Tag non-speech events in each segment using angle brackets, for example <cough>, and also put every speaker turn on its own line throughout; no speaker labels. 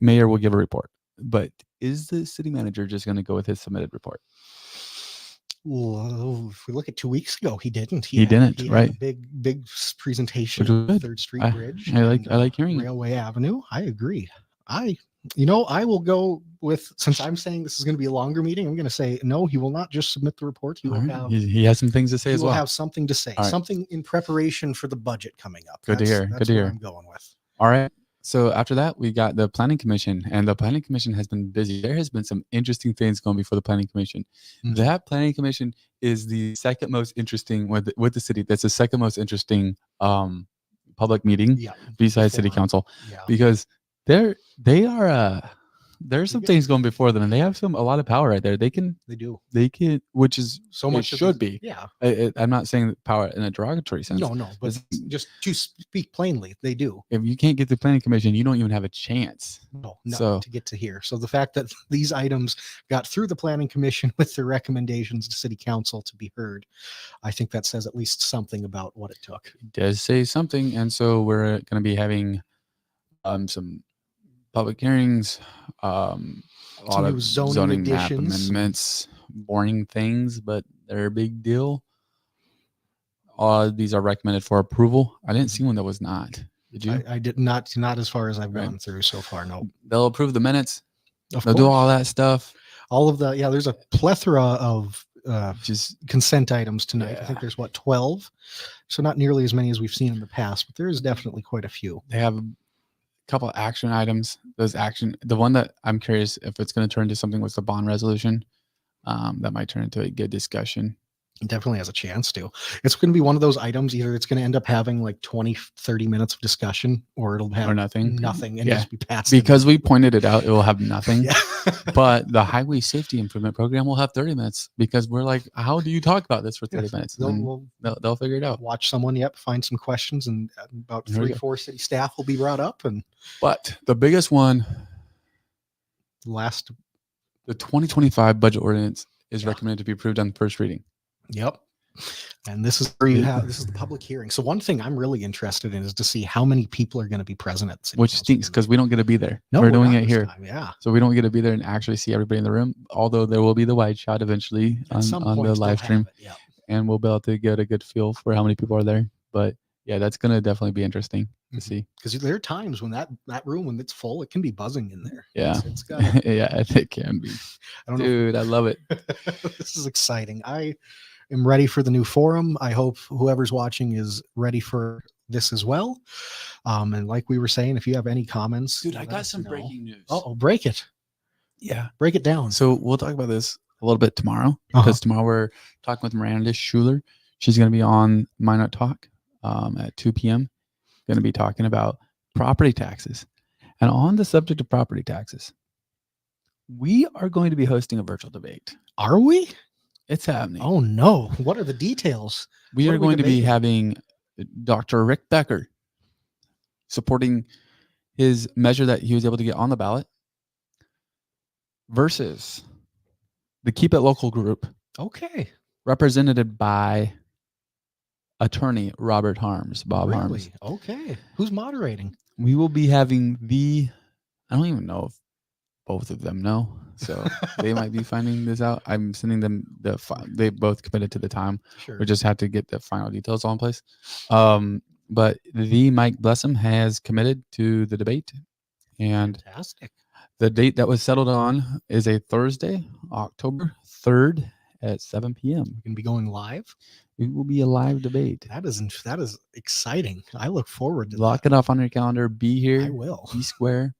mayor will give a report. But is the city manager just going to go with his submitted report?
Well, if we look at two weeks ago, he didn't.
He
had a-
didn't,
he had a
right.
Big, big s- presentation.
Which was
of the
good.
Third Street
I-
Bridge.
I like-
and,
I like
uh,
hearing it.
Railway Avenue. I agree. I, you know, I will go with since I'm saying this is going to be a longer meeting. I'm going to say no. He will not just submit the report. He
All
will
right.
have.
He, he has some things to say
he
as
will
well.
have something to say,
All right.
something in preparation for the budget coming up.
Good to
That's-
hear, good
that's
to
what
hear.
I'm going with.
All right. So after that, we got the planning commission, and the planning commission has been busy. There has been some interesting things going before the planning commission.
Mhm.
That planning commission is the second most interesting with the, with the city. That's the second most interesting um public meeting
Yeah.
besides city
forum.
council
Yeah.
because they're they are uh there are some
get-
things going before them, and they have some a lot of power right there. They can
They do
they can which is
so
It
much. of
should
the-
be.
Yeah.
I, I- I'm not saying power in a derogatory sense.
No, no. But
It's-
just to speak plainly, they do.
If you can't get the planning commission, you don't even have a chance.
No, no,
So-
to get to here. So the fact that <laughs> these items got through the planning commission <laughs> with their recommendations to city council to be heard, I think that says at least something about what it took.
does say something, and so we're going to be having um some public hearings, um, a lot
Some
of
new
zoning,
zoning
map
additions.
amendments, boring things, but they're a big deal. All these are recommended for approval. I didn't see one that was not. Did you?
Mm-hmm. I, I did not, not as far as I've
Right.
gone through so far. No,
They'll approve the minutes.
of
They'll
course,
do all that stuff.
all of the yeah. There's a plethora of uh,
Just
consent items tonight. I
Yeah.
think there's what twelve, so not nearly as many as we've seen in the past, but there is definitely quite a few.
they have a couple of action items. Those action, the one that I'm curious if it's going to turn into something was the bond resolution. Um, that might turn into a good discussion.
It definitely has a chance to. It's going to be one of those items. Either it's going to end up having like 20, 30 minutes of discussion, or it'll have
or nothing.
nothing and
Yeah.
just be passed in.
Because we pointed it out, it will have nothing.
<laughs> yeah.
But the highway safety improvement program will have 30 minutes because we're like, how do you talk about this for 30
Yes,
minutes? And
they'll,
then
we'll
they'll, they'll figure it out.
watch someone yep find some questions and uh, about
There we
three
go.
four city staff will be brought up and
But the biggest one,
last
the 2025 budget ordinance is
Yeah.
recommended to be approved on first reading.
yep and this is where you
Yeah.
have this is the public hearing so one thing i'm really interested in is to see how many people are going to be present at the city
Which
council
stinks
meeting.
because we don't get to be there.
No,
we're, doing
not
it
this
here.
time, yeah
So we don't get to be there and actually see everybody in the room, although there will be the wide shot eventually
At
on,
some
on
point
the
they'll
live
have
stream
it, yeah.
and we'll be able to get a good feel for how many people are there. But yeah, that's going to definitely be interesting to
Mhm.
see. <laughs>
because there are times when that that room when it's full it can be buzzing in there
Yeah.
It's-
<laughs>
it's got i
yeah, it can be.
don't know if
Dude, I love it.
<laughs> this is exciting. I am ready for the new forum. I hope whoever's watching is ready for this as well. Um, and like we were saying, if you have any comments,
news.
Oh, break it,
yeah.
break it down.
So we'll talk about this a little bit tomorrow
Uh-huh.
because tomorrow we're talking with Miranda Schuler. She's going to be on My Not Talk um, at 2 p.m. Going to be talking about property taxes. And on the subject of property taxes, we are going to be hosting a virtual debate.
Are we?
It's happening.
Oh no! What are the details?
we
what
are
are we
going to be
debating?
having Dr. Rick Becker supporting his measure that he was able to get on the ballot versus the Keep It Local group
Okay,
represented by attorney Robert Harms, Bob Harms.
really? Okay, who's moderating?
We will be having the, I don't even know if both of them know. <laughs> So they might be finding this out. I'm sending them the, fi- they both committed to the time.
sure.
We just have to get the final details all in place. Um, but the Mike Blessum has committed to the debate, and
fantastic.
the date that was settled on is a Thursday, October third at seven p.m.
We can be going live.
It will be a live debate.
That is isn't. that is exciting. I look forward to
Lock it off on your calendar. Be
that. I
here.
will.
Be square.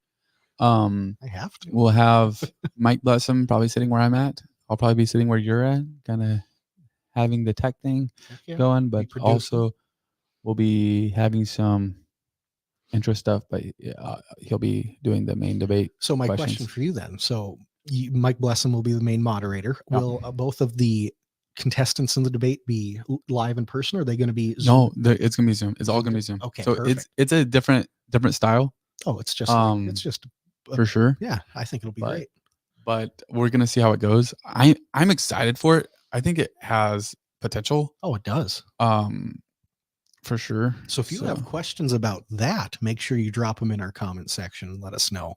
Um,
I have to.
we'll
<laughs>
have Mike Blessum probably sitting where I'm at. I'll probably be sitting where you're at, kind of having the tech thing.
Heck yeah.
going, but
producing.
also we'll be having some intro stuff. But yeah, uh, he'll be doing the main debate.
So my question
questions.
for you then. So you, Mike Blessing will be the main moderator.
Yeah.
Will uh, both of the contestants in the debate be l- live in person? Or are they going to be? Zoom?
No, the, it's gonna be Zoom. It's all gonna be Zoom.
Okay,
so it's it's a different different style
Oh, it's just.
um,
it's just.
for sure.
Yeah, I think it'll be
but-
great.
But we're gonna see how it goes. I I'm excited for it. I think it has potential.
Oh, it does.
Um, for sure.
So if you have
So-
questions about that, make sure you drop them in our comment section and let us know.